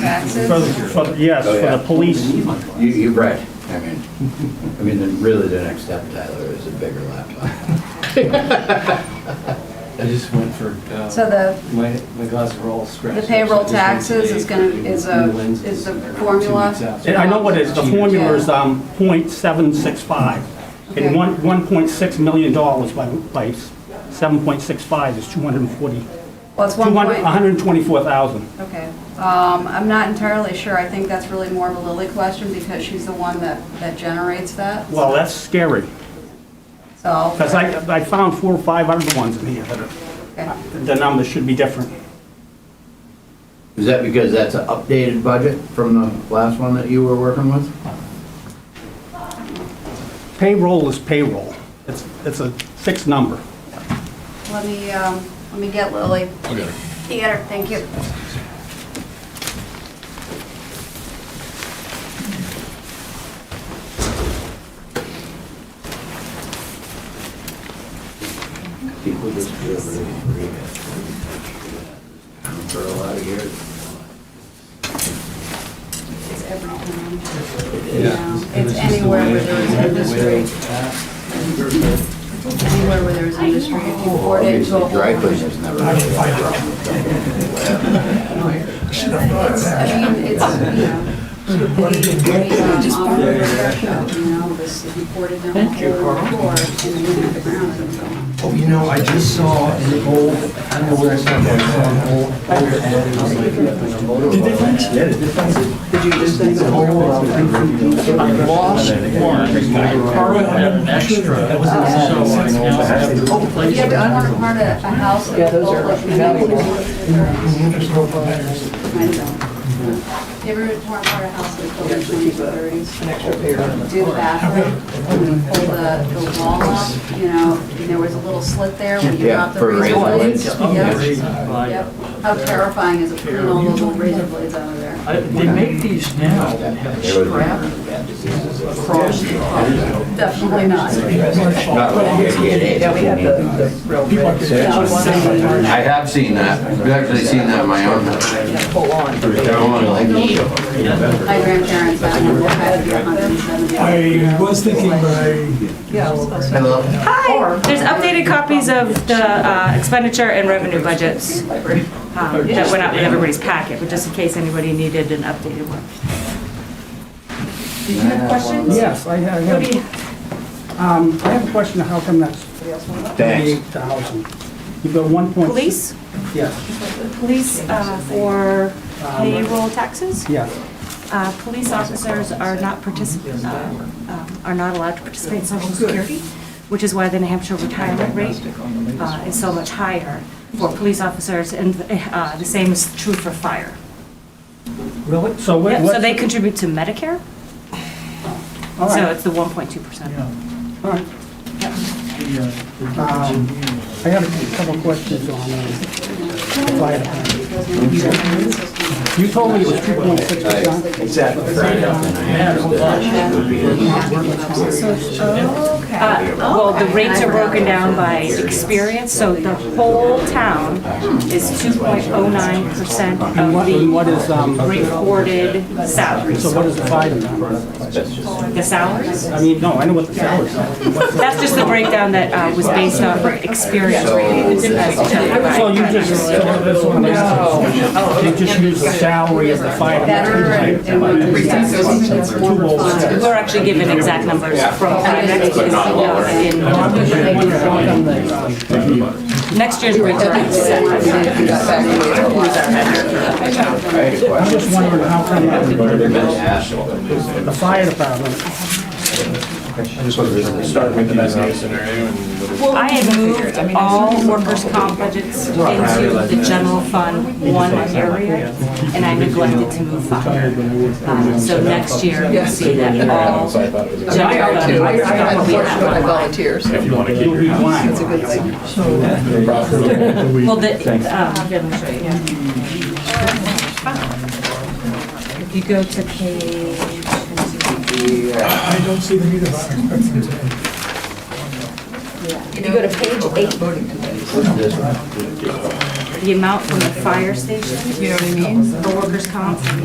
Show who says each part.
Speaker 1: taxes?
Speaker 2: For, for, yes,
Speaker 3: Oh,
Speaker 2: for
Speaker 3: yeah.
Speaker 2: the police.
Speaker 3: You, you're right. I mean, I mean, then really the next step, Tyler, is a bigger laptop.
Speaker 4: I just went for, uh,
Speaker 1: So the,
Speaker 4: my, my glasses were all scratched.
Speaker 1: the
Speaker 4: up, so
Speaker 1: payroll
Speaker 4: I just went
Speaker 1: taxes
Speaker 4: today
Speaker 1: is gonna,
Speaker 4: for the
Speaker 1: is a,
Speaker 4: new lenses.
Speaker 1: is the
Speaker 4: Two weeks
Speaker 1: formula?
Speaker 4: out.
Speaker 2: And I know what it is, the formula is, um, point seven six five.
Speaker 1: Okay.
Speaker 2: And one, one point six million dollars by, by seven point six five is two hundred and forty,
Speaker 1: Well, it's
Speaker 2: two
Speaker 1: one
Speaker 2: hundred,
Speaker 1: point,
Speaker 2: hundred and twenty-four thousand.
Speaker 1: okay. Um, I'm not entirely sure, I think that's really more of a Lily question because she's the one that, that generates that,
Speaker 2: Well, that's scary,
Speaker 1: so.
Speaker 2: because I, I found four or five other ones in here that are,
Speaker 1: okay.
Speaker 2: the numbers should be different.
Speaker 3: Is that because that's an updated budget from the last one that you were working with?
Speaker 2: Payroll is payroll. It's, it's a fixed number.
Speaker 1: Let me, um, let me get Lily. I'll get her. Get her, thank you.
Speaker 3: I think we just do it really free. For a lot of years.
Speaker 1: It's every time.
Speaker 3: is.
Speaker 1: Yeah, It's anywhere where there is industry, anywhere where there is industry, if you board it to a
Speaker 3: Obviously, dry
Speaker 1: whole.
Speaker 3: cleaners never really had a problem with
Speaker 1: It's, I mean, it's, you know. Thank you, Carl.
Speaker 5: Oh, you know, I just saw an old, I don't know where I saw that, an old, old ad, it was like,
Speaker 6: Did you just
Speaker 5: it's an old, uh, lost one, by Carl and Extra. It was an ad, it says, now,
Speaker 1: If you ever want to part a, a house.
Speaker 6: Yeah, those are valuable.
Speaker 5: the interest of buyers.
Speaker 1: You ever want to part a house that's built in the 1930s?
Speaker 6: an extra pair on the
Speaker 1: do the bathroom, and we pull the, the wall up, you know, and there was a little slit there where you
Speaker 3: Yeah,
Speaker 1: dropped the
Speaker 3: for
Speaker 1: razor
Speaker 3: razor
Speaker 1: blades.
Speaker 3: blades.
Speaker 1: Yep, yep. How terrifying is it pulling all those little razor blades out of there?
Speaker 6: I- They make these now that
Speaker 3: There
Speaker 6: have
Speaker 3: was-
Speaker 6: strap across the top.
Speaker 1: Definitely not.
Speaker 3: it. Not really, yeah, yeah, it is.
Speaker 6: Yeah, we have the, the real
Speaker 3: I
Speaker 6: red.
Speaker 3: have seen that. I've actually seen that in my own house.
Speaker 6: Full on.
Speaker 3: They're on like
Speaker 1: My grandparents had them, they had them for 170
Speaker 5: I was thinking by,
Speaker 3: Hello.
Speaker 7: Hi, there's updated copies of the uh, expenditure and revenue budgets um, that went out with everybody's packet, but just in case anybody needed an updated one. Did you have questions?
Speaker 2: Yes, I have,
Speaker 7: What do you-
Speaker 2: um, I have a question, how come that's
Speaker 3: Thanks.
Speaker 2: 38,000? You've got one point.
Speaker 7: Police,
Speaker 2: Yes,
Speaker 7: police uh, for payroll taxes?
Speaker 2: yes.
Speaker 7: Uh, Police officers are not participant, are not allowed to participate in social security, which is why the New Hampshire retirement rate uh, is so much higher for police officers, and uh, the same is true for fire.
Speaker 2: Really? So what?
Speaker 7: Yep,
Speaker 2: what-
Speaker 7: so they contribute to Medicare,
Speaker 2: all
Speaker 7: so
Speaker 2: right,
Speaker 7: it's the 1.2%.
Speaker 2: all right. Um, I have a couple questions on, um, fire department. You told me it was 2.6 percent.
Speaker 3: Exactly. Friday, and I understood it would be
Speaker 7: Uh, Well, the rates are broken down by experience, so the whole town is 2.09%
Speaker 2: And what, and what
Speaker 7: of
Speaker 2: is, um,
Speaker 7: the reported salaries.
Speaker 2: so what is the fire department?
Speaker 7: The salaries?
Speaker 2: I mean, no, I know what the salaries are.
Speaker 7: That's just the breakdown that uh, was based on experience rates.
Speaker 2: So you just, so that's what I'm asking. You just use the salary of the fire
Speaker 1: Better
Speaker 2: department. oh
Speaker 1: and what you that's more refined.
Speaker 7: We're actually given exact numbers from uh, next year's, uh, in- next year's rates are set.
Speaker 3: I had a
Speaker 2: I'm
Speaker 3: question.
Speaker 2: just wondering how come the the fire department,
Speaker 8: Start with the best case scenario and.
Speaker 7: I had moved all workers' comp budgets into the general fund one area, and I neglected to move fire. Um, So next year, you'll see that all
Speaker 8: So I thought it was.
Speaker 7: general
Speaker 6: I are
Speaker 7: fund
Speaker 6: too. I I got a
Speaker 7: will be
Speaker 6: portion of my
Speaker 7: outlined.
Speaker 6: volunteers.
Speaker 8: If you want to keep
Speaker 2: you'll be
Speaker 8: your house.
Speaker 2: blind.
Speaker 7: Well, the, um, here, let me show you. If you go to page,
Speaker 5: I don't see them either.
Speaker 6: If you go to page eight.
Speaker 7: the amount from the fire station,
Speaker 6: You know what I mean?
Speaker 7: the workers' comp,